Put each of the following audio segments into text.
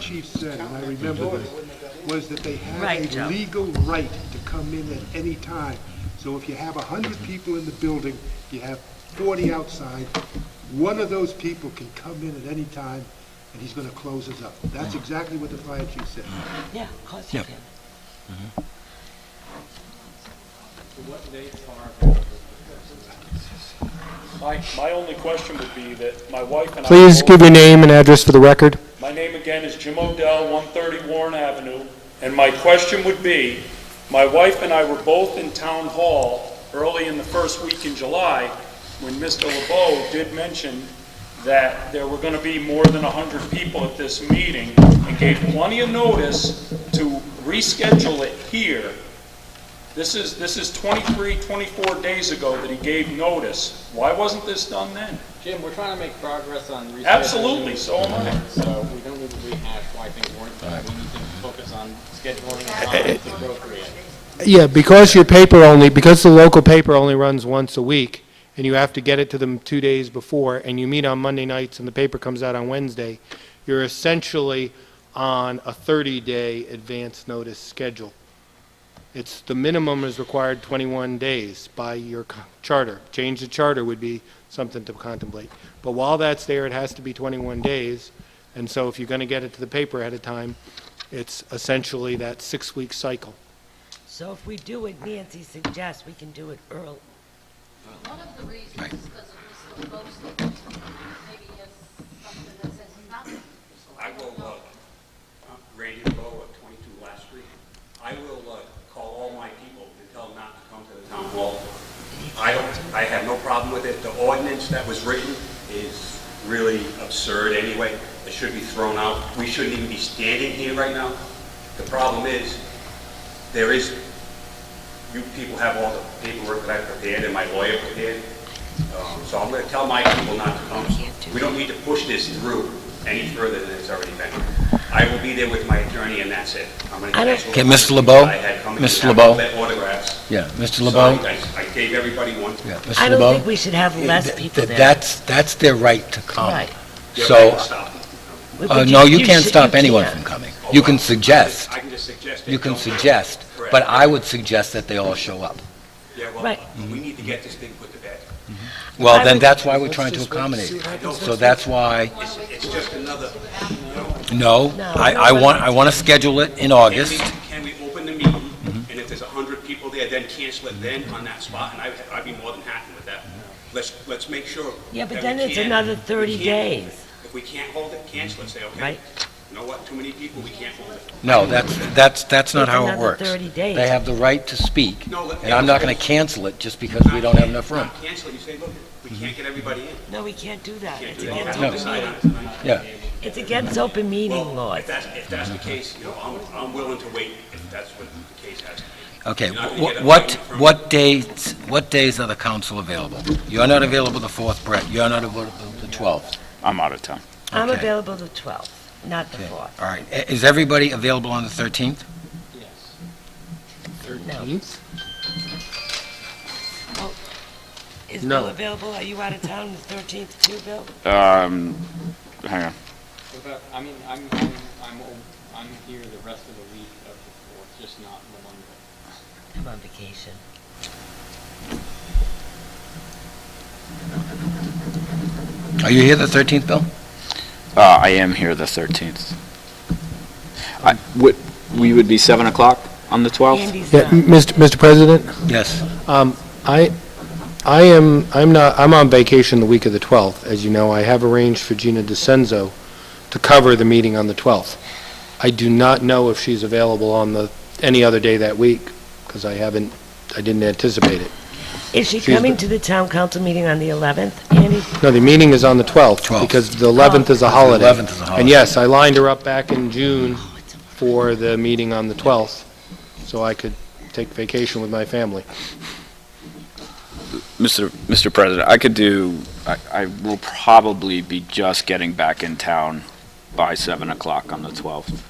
chief said, and I remember this, was that they Right, had Joe. a legal right to come in at any time. So if you have a hundred people in the building, you have forty outside, one of those people can come in at any time, and he's gonna close us up. That's exactly what the fire chief said. Yeah, of course you Yep. can. My, my only question would be that my wife and I. Please both- give your name and address for the record. My name again is Jim Odell, 130 Warren Avenue, and my question would be, my wife and I were both in Town Hall early in the first week in July when Mr. LeBeau did mention that there were going to be more than 100 people at this meeting and gave plenty of notice to reschedule it here. This is, this is 23, 24 days ago that he gave notice. Why wasn't this done then? Jim, we're trying to make progress on rescheduling. Absolutely, so am I. So we don't need to rehash why things weren't done. We need to focus on scheduling and time that's appropriate. Yeah, because your paper only, because the local paper only runs once a week, and you have to get it to them two days before, and you meet on Monday nights, and the paper comes out on Wednesday, you're essentially on a 30-day advance notice schedule. It's, the minimum is required 21 days by your co- charter. Change the charter would be something to contemplate. But while that's there, it has to be 21 days, and so if you're going to get it to the paper ahead of time, it's essentially that six-week cycle. So if we do what Nancy suggests, we can do it early. One of the reasons is because of Mr. LeBeau's statement, maybe he has something that says nothing. I will, uh, Randy Bowe at 22 West Street. I will uh, call all my people and tell them not to come to the town hall. I don't, I have no problem with it. The ordinance that was written is really absurd anyway. It should be thrown out. We shouldn't even be standing here right now. The problem is, there is, you people have all the paperwork that I prepared and my lawyer prepared. Um, So I'm going to tell my people not to come. We don't need to push this through any further than it's already been. I will be there with my attorney and that's it. I'm gonna- I don't- that's Okay, what Mr. LeBeau? I had come in. Mr. I have LeBeau? their autographs. Yeah, Mr. So LeBeau? I I gave everybody one. Yeah, I Mr. don't LeBeau? think we should have less eh, Th- people th- there. That's, that's their right to come. Right. So, Stop. But- uh, but no, you can't should- stop you anyone can't. from coming. You can suggest, I can just suggest. they you can don't. suggest, Correct. but I would suggest that they all show up. Yeah, well, Right. we need to get this thing put to bed. Well, I then would- that's why we're trying to accommodate. So that's why, It's it's just another, no, No. I, I want, I want to schedule it in August. Can we can we open the meeting, Mm-hmm. and if there's 100 people there, then cancel it then on that spot, and I- I'd be more than happy with that. Let's, let's make sure. Yeah, but that then we it's can- another we 30 can't days. hold it. If we can't hold it, cancel it, say, okay, Right. you know what, too many people, we can't hold it. No, that's, that's, that's not It's how it another works. 30 days. They have the right to speak, No, let- and I'm not going to cancel it just because we don't have enough room. Mm-hmm. Not Cancel it, you say, look, we can't get everybody in. No, we can't do that. Can't It's do that. against We'll open decide on meeting. it tonight. Yeah. It's against open meeting Well, laws. if that's, if that's the case, you know, I'm, I'm willing to wait if that's what the case has to be. Okay, You're not gonna wh- get a what, payment from- what dates, what days are the council available? You're not available the 4th, Brett, you're not available the 12th. I'm out of town. I'm okay. available the 12th, not the Okay, 4th. All right, I- is everybody available on the 13th? Yes. Is No. Bill available? Are you out of town the 13th too, Bill? Um, hang on. What about, I mean, I'm, I'm, I'm, I'm here the rest of the week of the fourth, just not the Monday. I'm on vacation. Are you here the 13th, Bill? Uh, I am here the 13th. I, would, we would be 7 o'clock on the 12th? Andy's Yeah, not. m- Mr. Mr. President, Yes. um, I, I am, I'm not, I'm on vacation the week of the 12th. As you know, I have arranged for Gina DeCenzo to cover the meeting on the 12th. I do not know if she's available on the, any other day that week, because I haven't, I didn't anticipate it. Is she She's coming the- to the town council meeting on the 11th? Andy, No, the meeting is on the 12th, 12th. because the 11th Oh. is a holiday. 11th is a holiday. And yes, I lined her up back in June for the meeting on the 12th, so I could take vacation with my family. Mr. Mr. President, I could do, I, I will probably be just getting back in town by 7 o'clock on the 12th.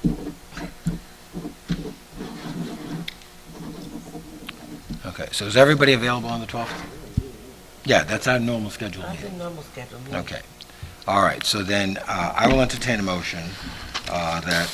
Okay, so is everybody available on the 12th? Yeah, that's our normal schedule I'm meeting. in normal schedule. meeting. Okay. All right, so then uh, I will entertain a motion uh, that